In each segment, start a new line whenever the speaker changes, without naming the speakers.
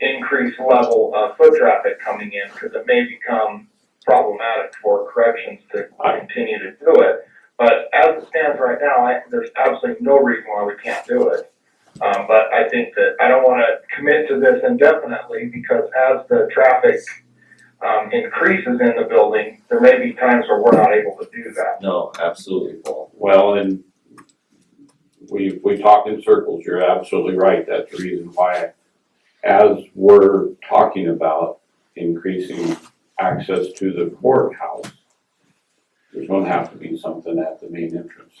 increased level of foot traffic coming in, because it may become problematic for corrections to continue to do it. But as it stands right now, I, there's absolutely no reason why we can't do it. Um, but I think that, I don't wanna commit to this indefinitely, because as the traffic, um, increases in the building, there may be times where we're not able to do that.
No, absolutely, Paul.
Well, and we, we talked in circles, you're absolutely right, that's the reason why as we're talking about increasing access to the courthouse, there's gonna have to be something at the main entrance.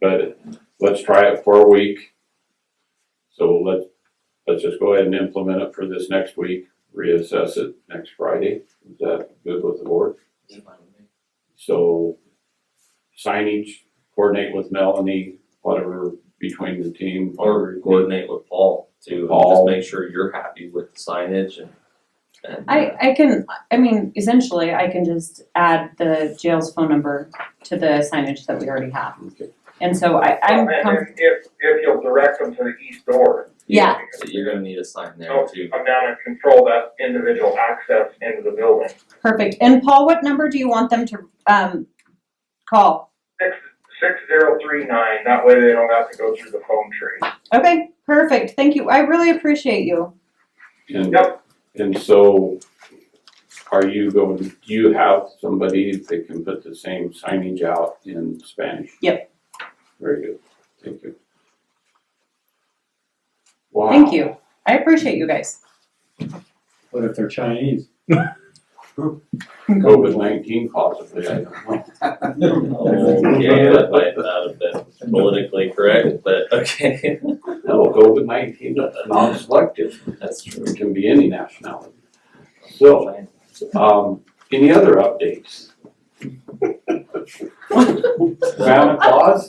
But let's try it for a week. So let's, let's just go ahead and implement it for this next week, reassess it next Friday, is that good with the board? So signage, coordinate with Melanie, whatever, between the team.
Or coordinate with Paul to just
Paul.
make sure you're happy with the signage and, and.
I, I can, I mean, essentially, I can just add the jail's phone number to the signage that we already have.
Okay.
And so I, I'm
And
comfortable,
if- If, if you'll direct them to the east door.
Yeah.
uh, You're gonna need a sign there
Oh.
too.
Come down and control that individual access into the building.
perfect. And Paul, what number do you want them to, um, call?
Six, six zero three nine, that way they don't have to go through the phone tree.
Okay, perfect, thank you, I really appreciate you.
And,
Yep.
and so are you going, do you have somebody that can put the same signage out in Spanish?
Yep.
Very good, thank you.
Thank you, I appreciate you guys.
What if they're Chinese?
COVID nineteen possibly, I don't know.
Oh, yeah, that might not have been politically correct, but okay,
No, COVID nineteen, that's non-selective,
that's true.
it can be any nationality. So, Um, any other updates? Santa Claus?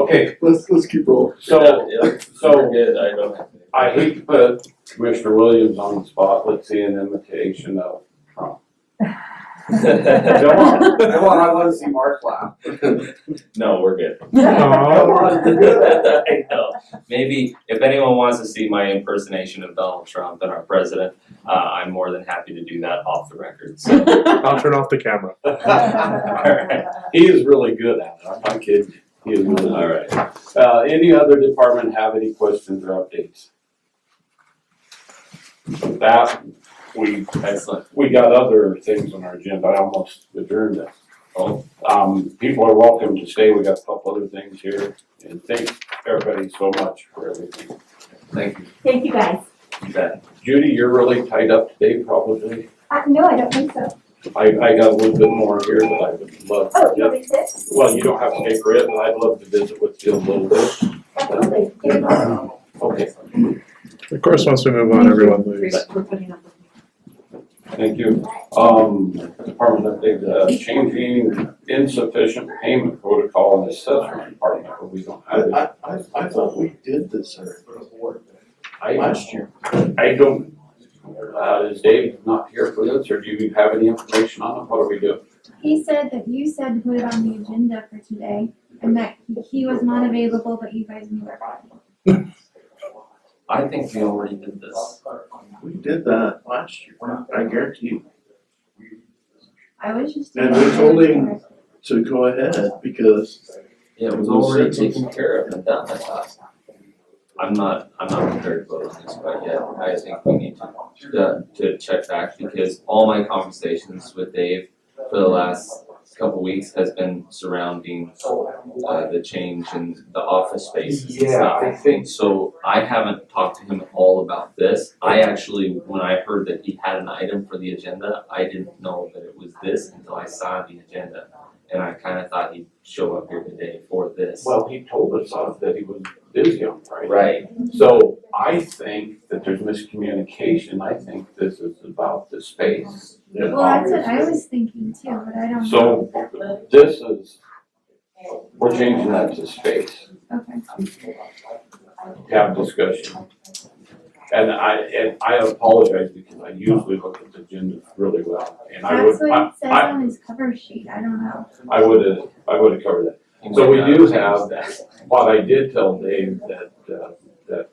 Okay,
Let's, let's keep rolling.
so
Yeah, yeah,
so-
we're good, I don't. have any-
I hate to put Commissioner Williams on the spot, let's see an imitation of Trump. Come on, come on, I wanna see Mark laugh.
No, we're good.
Come on, you're good.
I know. Maybe if anyone wants to see my impersonation of Donald Trump and our president, uh, I'm more than happy to do that off the record. So,
I'll turn off the camera.
alright,
He is really good at it, I'm not kidding, he is really, good.
alright.
Uh, any other department have any questions or updates? With that, we
Excellent.
We got other things on our agenda, I almost adjourned it.
Oh.
Um, people are welcome to stay, we got a couple other things here, and thank everybody so much for everything.
Thank you.
Thank you guys.
You bet.
Judy, you're really tied up today probably,
Uh, no, I don't think so.
I, I got a little bit more here that I would love,
Oh, you
yeah,
want me to sit?
well, you don't have to take it, but I'd love to visit with you a little bit.
Absolutely. Give me one.
Okay,
Of course, once we move on, everyone leaves.
thank you. Um, department update, uh, changing insufficient payment protocol in the assessment department, but we don't
I,
have it.
I, I- I thought we did this already
I-
last year.
I don't, uh, is Dave not here for this, or do you have any information on it, what do we do?
He said that you said to put it on the agenda for today and that he was not available, but you guys knew about it.
I think we already did this.
We did that last year, I guarantee you,
I was just.
And we told him- to go ahead because
Yeah, it was already taken care of and done, I thought. I'm not, I'm not prepared to vote on this quite yet. I think we need to, uh, to check back because all my conversations with Dave for the last couple weeks has been surrounding uh, the change in the office spaces and stuff.
think.
So I haven't talked to him at all about this. I actually, when I heard that he had an item for the agenda, I didn't know that it was this until I saw the agenda. And I kinda thought he'd show up here today for this.
Well, he told us uh, that he was busy on Friday.
Right,
So I think that there's miscommunication, I think this is about the space.
Well, that's what I was thinking too, but I don't. know.
So this is, we're changing that to space,
Okay.
have discussion. And I, and I apologize because I usually look at the agenda really well, and I
That's
would, I,
what it says
I-
on his cover sheet, I don't know.
I would have, I would have covered that. So we do have that. But I did tell Dave that, uh,